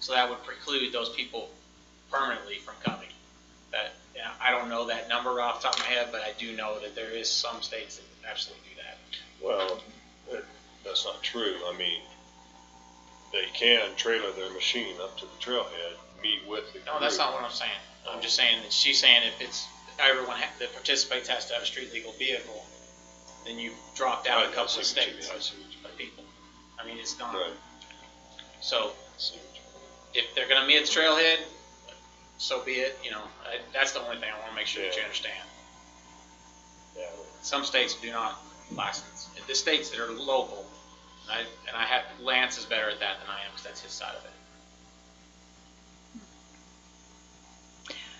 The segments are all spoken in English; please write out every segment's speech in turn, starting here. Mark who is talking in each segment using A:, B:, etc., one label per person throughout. A: So that would preclude those people permanently from coming. That, yeah, I don't know that number off the top of my head, but I do know that there is some states that absolutely do that.
B: Well, that- that's not true. I mean, they can trailer their machine up to the trailhead, meet with the crew.
A: No, that's not what I'm saying. I'm just saying that she's saying if it's, everyone ha- that participates has to have a street legal vehicle, then you've dropped out
B: Right,
A: a
B: I
A: couple of
B: see what you mean,
A: states Uh-huh.
B: I see what you
A: of people. I mean, it's not,
B: mean. Right,
A: so
B: I see what you mean.
A: if they're gonna meet at the trailhead, so be it, you know, I- that's the only thing I wanna make sure that you
B: Yeah.
A: understand.
B: Yeah,
A: Some states do not license, the states that are local, and I, and I have, Lance is better at that than I am, cause that's his side of it.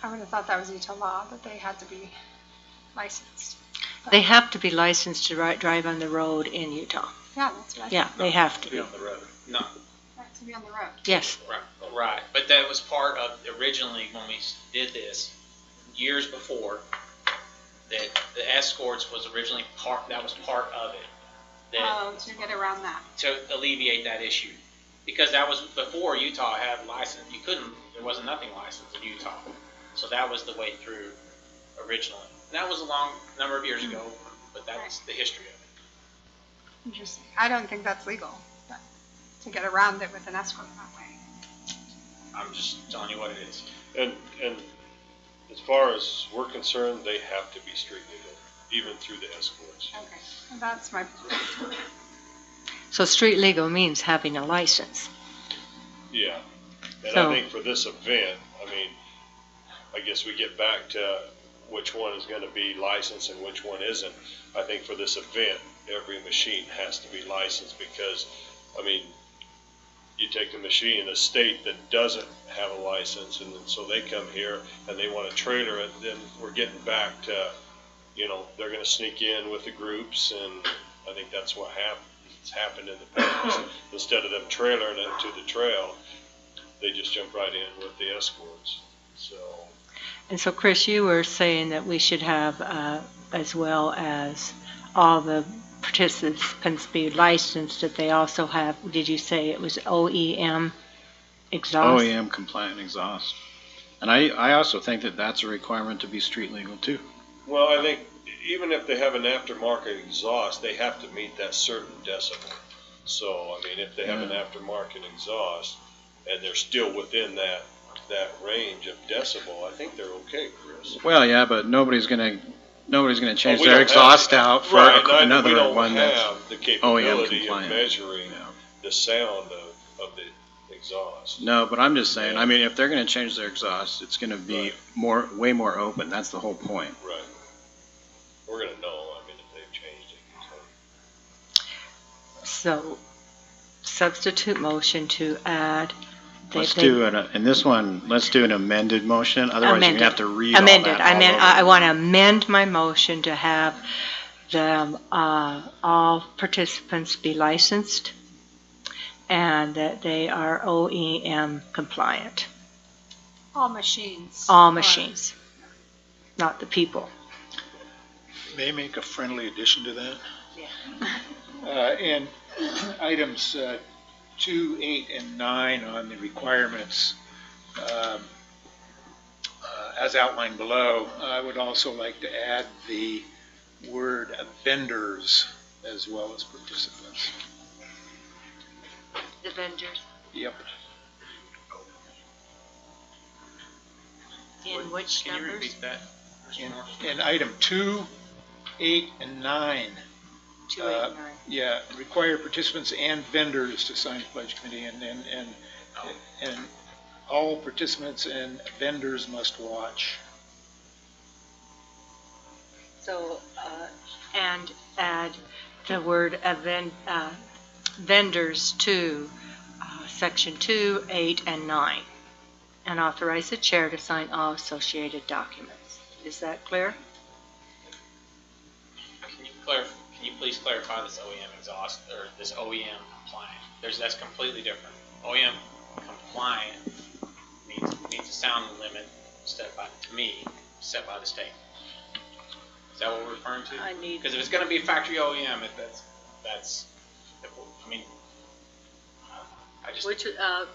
C: I would have thought that was Utah law, that they had to be licensed.
D: They have to be licensed to ri- drive on the road in Utah.
C: Yeah, that's right.
D: Yeah, they have to
B: be
D: be.
B: on the road.
A: No,
C: They have to be on the road.
D: Yes,
A: Right, right, but that was part of, originally, when we did this, years before, that the escorts was originally part, that was part of it. That,
C: Oh, to get around that.
A: to alleviate that issue, because that was before Utah had license, you couldn't, there wasn't nothing licensed in Utah. So that was the way through originally. And That was a long number of years
D: Hmm.
A: ago, but that's the history of it.
C: Interesting. I don't think that's legal, but to get around it with an escort that way.
A: I'm just telling you what it is.
B: And, and as far as we're concerned, they have to be street legal, even through the escorts.
C: Okay, well, that's my position.
D: so street legal means having a license.
B: Yeah, and I
D: So-
B: think for this event, I mean, I guess we get back to which one is gonna be licensed and which one isn't. I think for this event, every machine has to be licensed because, I mean, you take a machine in a state that doesn't have a license and then- so they come here and they wanna trailer it, then we're getting back to, you know, they're gonna sneak in with the groups and I think that's what happened, it's happened in the past. Instead of them trailering it to the trail, they just jump right in with the escorts. So,
D: And so, Chris, you were saying that we should have, uh, as well as all the participants be licensed, that they also have, did you say it was OEM exhaust?
E: OEM Oh, compliant exhaust. And I, I also think that that's a requirement to be street legal too.
B: well, I think even if they have an aftermarket exhaust, they have to meet that certain decibel. So, I mean, if they have an
E: Yeah.
B: aftermarket exhaust and they're still within that, that range of decibel, I think they're okay, Chris.
E: Well, yeah, but nobody's gonna, nobody's gonna change
B: we
E: their
B: don't have-
E: exhaust out for
B: Right, and I- we
E: another
B: don't
E: one that's. E
B: have The capability of
E: compliant.
B: measuring
E: Yeah.
B: the sound of, of the exhaust.
E: No, but I'm just saying,
B: Yeah.
E: I mean, if they're gonna change their exhaust, it's gonna be
B: Right.
E: more, way more open. That's the whole point.
B: Right. We're gonna know, I mean, if they've changed it. so.
D: So, substitute motion to add. that
E: Let's
D: they-
E: do it, in this one, let's do an amended motion, otherwise you're
D: Amended.
E: gonna have to read all that
D: amended. I
E: all
D: mean,
E: over
D: I, I
E: again.
D: want to amend my motion to have the, uh, all participants be licensed and that they are OEM compliant,
C: All machines.
D: all
C: are-
D: machines, not the people.
F: May I make a friendly addition to that? Uh, in items, uh, two, eight, and nine on the requirements, um, uh, as outlined below, I would also like to add the word vendors as well as participants.
D: The vendors,
F: Yep.
D: in which
A: Can you repeat that?
F: In, in item two, eight, and nine,
D: Two,
F: eight, nine. yeah, require participants and vendors to sign the pledge committee and, and, and And all participants and vendors must watch.
D: So, uh, and add the word aven- uh, vendors to uh, section two, eight, and nine, and authorize the chair to sign all associated documents. Is that clear?
A: Can you clarify, can you please clarify this OEM exhaust, or this OEM compliant? There's, that's completely different. OEM compliant means, means a sound limit set by, to me, set by the state. Is that what we're referring to?
D: I need-
A: Because if it's gonna be factory E OEM, if that's, that's, I mean, I just.
D: Which, uh,